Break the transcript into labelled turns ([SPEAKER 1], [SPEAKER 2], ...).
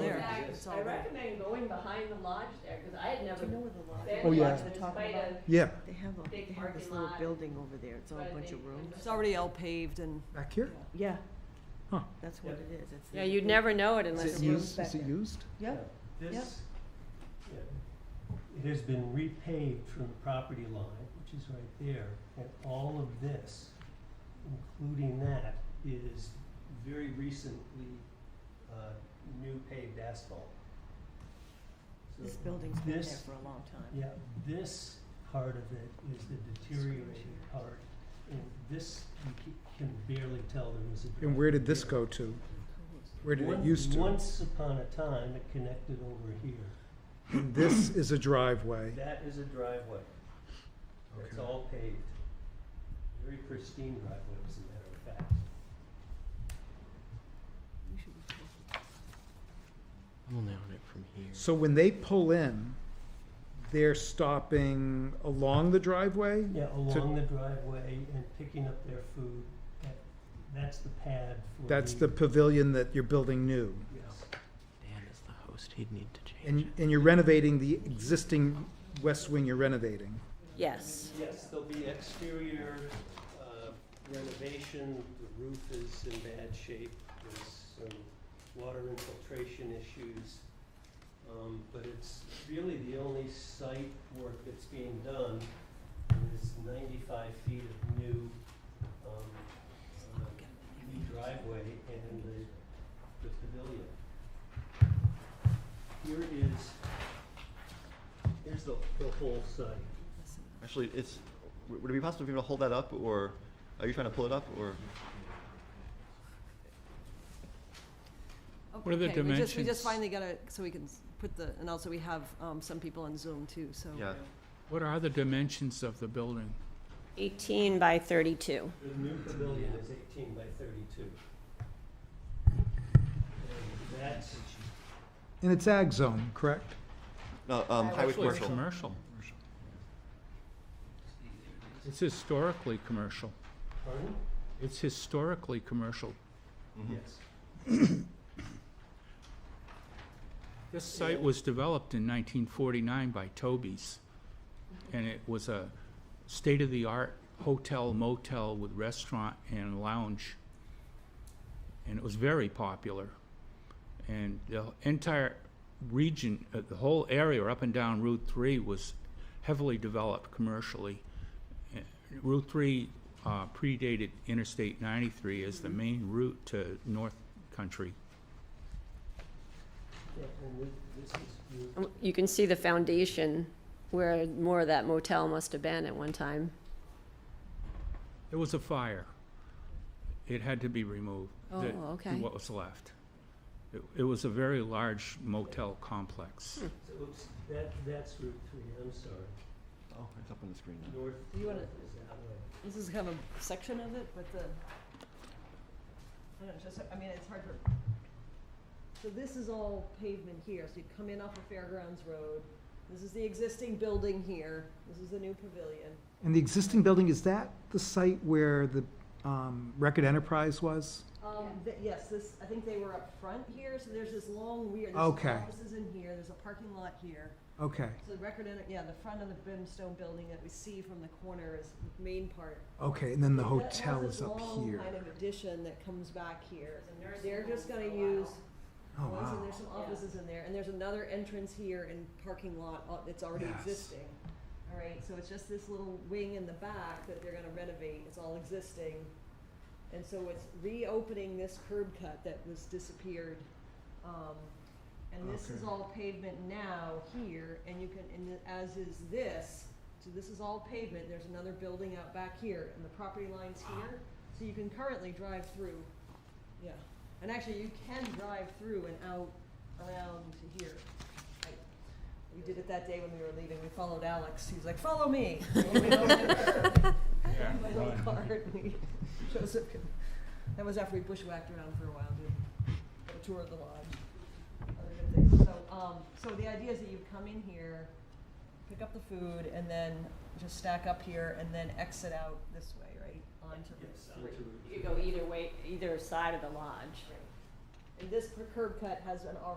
[SPEAKER 1] it's all
[SPEAKER 2] I
[SPEAKER 1] there.
[SPEAKER 2] recommend going behind the lodge there, cause I had never
[SPEAKER 1] Do you know
[SPEAKER 2] been
[SPEAKER 1] where the lodge?
[SPEAKER 2] there,
[SPEAKER 1] is?
[SPEAKER 3] Oh, yeah.
[SPEAKER 2] in
[SPEAKER 1] Talking
[SPEAKER 2] spite
[SPEAKER 1] about-
[SPEAKER 2] of,
[SPEAKER 3] Yeah,
[SPEAKER 1] They have a,
[SPEAKER 2] Big
[SPEAKER 1] they have this
[SPEAKER 2] parking
[SPEAKER 1] little
[SPEAKER 2] lot.
[SPEAKER 1] building over there, it's all
[SPEAKER 2] But
[SPEAKER 1] a
[SPEAKER 2] I
[SPEAKER 1] bunch of
[SPEAKER 2] think-
[SPEAKER 1] rooms.
[SPEAKER 2] It's
[SPEAKER 4] It's already all paved and
[SPEAKER 3] back here?
[SPEAKER 1] Yeah.
[SPEAKER 3] Huh.
[SPEAKER 1] That's what it is, it's.
[SPEAKER 5] Yeah,
[SPEAKER 1] the
[SPEAKER 5] you'd
[SPEAKER 1] big-
[SPEAKER 5] never know it
[SPEAKER 3] Is
[SPEAKER 5] unless
[SPEAKER 3] it
[SPEAKER 5] you.
[SPEAKER 3] used, is it used?
[SPEAKER 1] Yeah,
[SPEAKER 6] This, yeah, it has been repaved from the property line, which is right there, and all of this, including that, is very recently, uh, new paved asphalt. So
[SPEAKER 1] this building's been there
[SPEAKER 6] this-
[SPEAKER 1] for a long time.
[SPEAKER 6] Yeah, this part of it is the deteriorating part, and this, you ca- can barely tell there was a.
[SPEAKER 3] And where did this
[SPEAKER 6] driveway.
[SPEAKER 3] go to? Where did it
[SPEAKER 6] Once-
[SPEAKER 3] used to?
[SPEAKER 6] Once upon a time, it connected over here.
[SPEAKER 3] And This is a driveway.
[SPEAKER 6] That is a driveway. That's
[SPEAKER 3] Okay.
[SPEAKER 6] all paved. Very pristine driveway, as a matter of fact.
[SPEAKER 1] You should be careful.
[SPEAKER 7] We'll narrow it from here.
[SPEAKER 3] So when they pull in, they're stopping along the driveway?
[SPEAKER 6] Yeah, along the driveway and picking up their food. That- That's the pad for the.
[SPEAKER 3] That's the pavilion that you're building new.
[SPEAKER 6] Yes.
[SPEAKER 7] Dan is the host. He'd need to change
[SPEAKER 3] And, and you're renovating the existing west wing you're renovating.
[SPEAKER 5] Yes.
[SPEAKER 6] Yes, there'll be exterior uh, renovation. The roof is in bad shape. There's some water infiltration issues. Um, But it's really the only site work that's being done is ninety-five feet of new um, uh, new driveway and the the pavilion. Here is, here's the the whole site.
[SPEAKER 8] Actually, it's, would it be possible for you to hold that up, or are you trying to pull it up, or?
[SPEAKER 5] Okay,
[SPEAKER 9] What are the
[SPEAKER 5] we just- We
[SPEAKER 9] dimensions?
[SPEAKER 5] just finally got a, so we can s- put the, and also we have um, some people on Zoom too, so.
[SPEAKER 8] Yeah.
[SPEAKER 9] What are the dimensions of the building?
[SPEAKER 2] 18 by 32.
[SPEAKER 6] The new pavilion is eighteen by thirty-two. And that's,
[SPEAKER 3] And it's ag zone, correct?
[SPEAKER 8] No, um, highway
[SPEAKER 9] Actually, it's
[SPEAKER 8] commercial.
[SPEAKER 9] Commercial. It's historically commercial.
[SPEAKER 6] pardon?
[SPEAKER 9] It's historically commercial.
[SPEAKER 8] Mhm.
[SPEAKER 6] Yes.
[SPEAKER 9] This site was developed in 1949 by Toby's, and it was a state-of-the-art hotel motel with restaurant and lounge, and it was very popular. And the entire region, uh, the whole area up and down Route 3 was heavily developed commercially. Uh, Route 3 uh, predated Interstate 93 as the main route to North Country.
[SPEAKER 6] Yeah, and thi- this is, you-
[SPEAKER 5] You can see the foundation where more of that motel must have been at one time.
[SPEAKER 9] There was a fire. It had to be removed.
[SPEAKER 5] Oh,
[SPEAKER 9] the-
[SPEAKER 5] okay.
[SPEAKER 9] What was left. It, it was a very large motel complex.
[SPEAKER 6] so it's- that, that's Route three, I'm sorry.
[SPEAKER 8] Oh, it's up on the screen now.
[SPEAKER 6] North
[SPEAKER 5] You wanna-
[SPEAKER 6] north is that way.
[SPEAKER 5] This is kind of a section of it, but the, I don't know, just, I mean, it's hard to. So this is all pavement here, so you come in off of Fairgrounds Road, this is the existing building here, this is the new pavilion.
[SPEAKER 3] And the existing building, is that the site where the um, Record Enterprise was?
[SPEAKER 5] Um, th- yes, this, I think they were up front here, so there's this long weird, there's
[SPEAKER 3] Okay.
[SPEAKER 5] offices in here, there's a parking lot here.
[SPEAKER 3] Okay,
[SPEAKER 5] So the record, enter- yeah, the front of the brimstone building that we see from the corner is the main part.
[SPEAKER 3] okay, and then the
[SPEAKER 5] That has
[SPEAKER 3] hotel
[SPEAKER 5] this
[SPEAKER 3] is up
[SPEAKER 5] long
[SPEAKER 3] here.
[SPEAKER 5] Kind of addition that comes back here.
[SPEAKER 2] There's a nursing
[SPEAKER 5] They're just
[SPEAKER 2] home
[SPEAKER 5] gonna
[SPEAKER 2] for a while.
[SPEAKER 5] use,
[SPEAKER 3] Oh,
[SPEAKER 5] ones,
[SPEAKER 3] wow.
[SPEAKER 5] and there's some
[SPEAKER 2] Yeah.
[SPEAKER 5] offices in there, and there's another entrance here and parking lot uh, that's already
[SPEAKER 3] Yes.
[SPEAKER 5] existing. All right, so it's just this little wing in the back that they're gonna renovate, it's all existing. And so it's reopening this curb cut that was disappeared. Um, and this is
[SPEAKER 3] Okay.
[SPEAKER 5] all pavement now here, and you can, and the- as is this, so this is all pavement, there's another building out back here, and the property line's here, so you can currently drive through, yeah. And actually, you can drive through and out around to here. Like, We did it that day when we were leaving, we followed Alex, he was like, follow me. And we went over there.
[SPEAKER 9] Yeah.
[SPEAKER 5] My little car, and we, Joseph, could- that was after we bushwhacked around for a while, did a tour of the lodge other good things. So, um, so the idea is that you come in here, pick up the food, and then just stack up here, and then exit out this way, right, onto
[SPEAKER 6] Yes,
[SPEAKER 5] Route
[SPEAKER 6] onto
[SPEAKER 5] Three.
[SPEAKER 6] Route
[SPEAKER 2] You could go either way, either side of the lodge.
[SPEAKER 5] And this per- curb cut has an